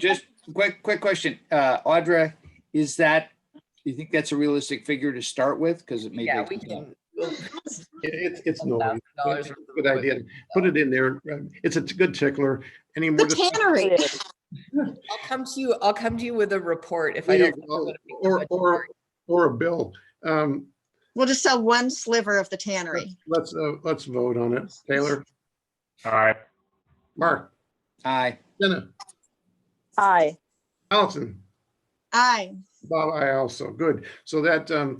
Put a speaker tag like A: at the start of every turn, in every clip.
A: Just quick, quick question. Uh, Audra, is that, do you think that's a realistic figure to start with? Because it may.
B: Yeah, we
A: take some time.
B: can.
C: It- It's, it's no,
B: $1,000
C: it's a good idea. Put it in there. Um, It's a good tickler. Any more?
D: The
C: dis-
D: tannery.
B: I'll come to you, I'll come to you with a report if I
C: There you
B: don't.
C: go. Or, or, or a bill. Um,
D: We'll just sell one sliver of the tannery.
C: let's, uh, let's vote on it. Taylor,
E: Aye.
C: Mark,
A: Aye,
C: Jenna,
F: Aye.
C: Allison,
D: Aye.
C: Bob, I also, good. So that, um,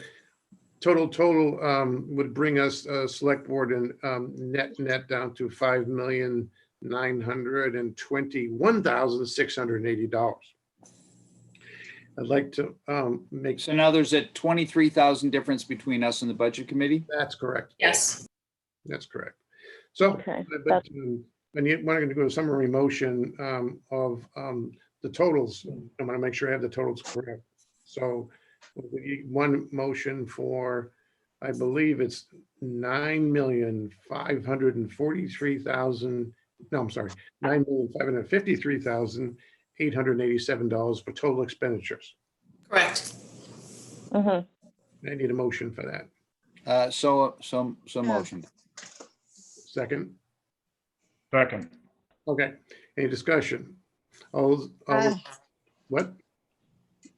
C: total, total, um, would bring us, uh, select board and, um, net, net down to five million, nine hundred and twenty-one thousand, six hundred and eighty dollars. I'd like to, um, make,
A: so now there's a twenty-three thousand difference between us and the budget committee?
C: that's correct.
B: Yes.
C: That's correct. So,
F: Okay,
C: but- but,
F: that's-
C: um, and you, we're going to do a summary motion um, of um, the totals.
F: Hmm.
C: I want to make sure I have the totals correct. So we need one motion for, I believe it's nine million, five hundred and forty-three thousand, no, I'm sorry, nine million, five hundred and fifty-three thousand, eight hundred and eighty-seven dollars for total expenditures.
B: Correct.
F: mhm.
C: I need a motion for that.
A: Uh, so, so, so
D: Yeah.
A: motion.
C: Second?
E: Second.
C: Okay, any discussion? All, all,
D: Uh,
C: what?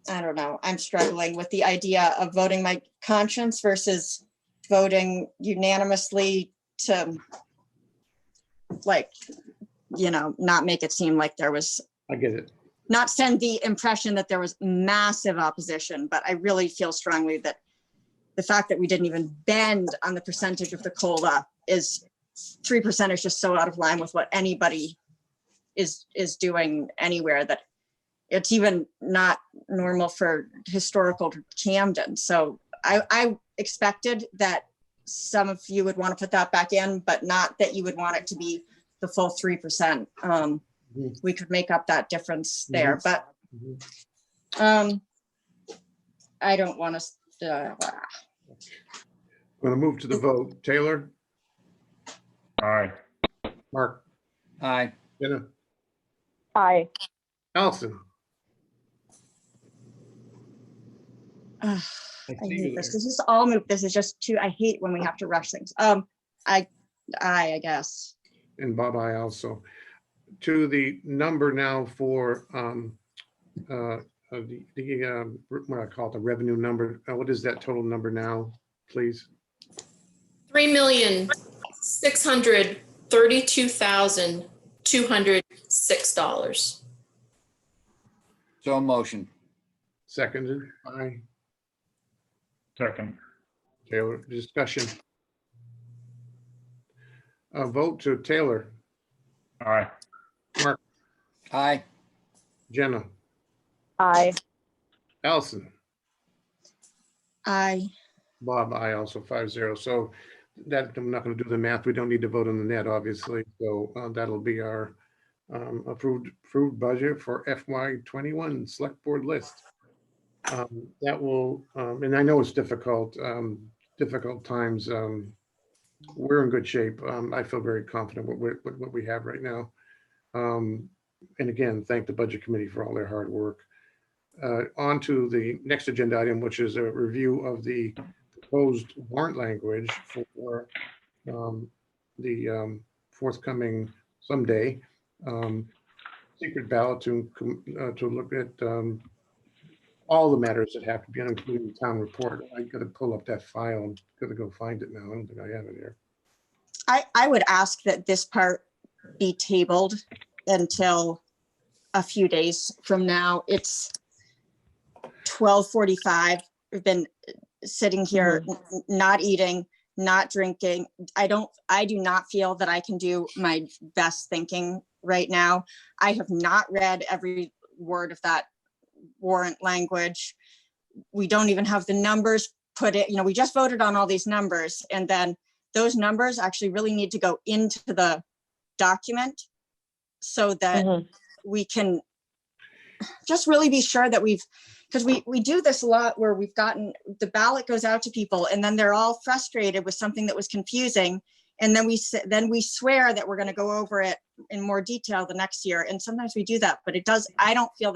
D: I don't know. I'm struggling with the idea of voting my conscience versus voting unanimously to like, you know, not make it seem like there was,
C: I get it.
D: not send the impression that there was massive opposition, but I really feel strongly that the fact that we didn't even bend on the percentage of the COLA is, three percent is just so out of line with what anybody is, is doing anywhere that it's even not normal for historical Camden. So I, I expected that some of you would want to put that back in, but not that you would want it to be the full three percent. Um,
C: Mhm.
D: we could make up that difference there,
C: Mhm.
D: but um, I don't uh, want to,
C: I'm going to move to the vote. Taylor,
E: Aye.
C: Mark,
A: Aye,
C: Jenna,
F: Aye.
C: Allison.
D: uh,
C: I
D: I
C: see
D: hate this. This is all move. This is just too, I hate when we have to rush things. Um, I, I, I guess.
C: you, And Bob, I also. To the number now for um, uh, of the, the, um, what I call it, the revenue number. Uh, What is that total number now, please?
G: Three million, six hundred thirty-two thousand, two hundred six dollars.
A: so motion.
C: Seconded by
E: Second.
C: Taylor, discussion. A vote to Taylor,
E: Aye.
A: Aye,
C: Jenna,
F: Aye.
C: Allison.
D: I,
C: Bob, I also five zero. So that, I'm not going to do the math. We don't need to vote on the net, obviously. So uh, that'll be our um, approved, approved budget for FY twenty-one select board list. Um, That will, um, and I know it's difficult, um, difficult times. um, We're in good shape. Um, I feel very confident with, with with what we have right now. Um, And again, thank the budget committee for all their hard work. Uh, On to the next agenda item, which is a review of the proposed warrant language for um, the um, forthcoming someday um, secret ballot to, com- uh, to look at um, all the matters that have to be on, including the town report. I gotta pull up that file. I'm gonna go find it now. I don't think I have it here.
D: I, I would ask that this part be tabled until a few days from now. It's twelve forty-five. We've been sitting here, n- n- not eating, not drinking. I don't, I do not feel that I can do my best thinking right now. I have not read every word of that warrant language. We don't even have the numbers put it, you know, we just voted on all these numbers and then those numbers actually really need to go into the document so that
F: mhm.
D: we can just really be sure that we've, because we, we do this a lot where we've gotten, the ballot goes out to people and then they're all frustrated with something that was confusing. And then we, s- then we swear that we're going to go over it in more detail the next year. And sometimes we do that, but it does, I don't feel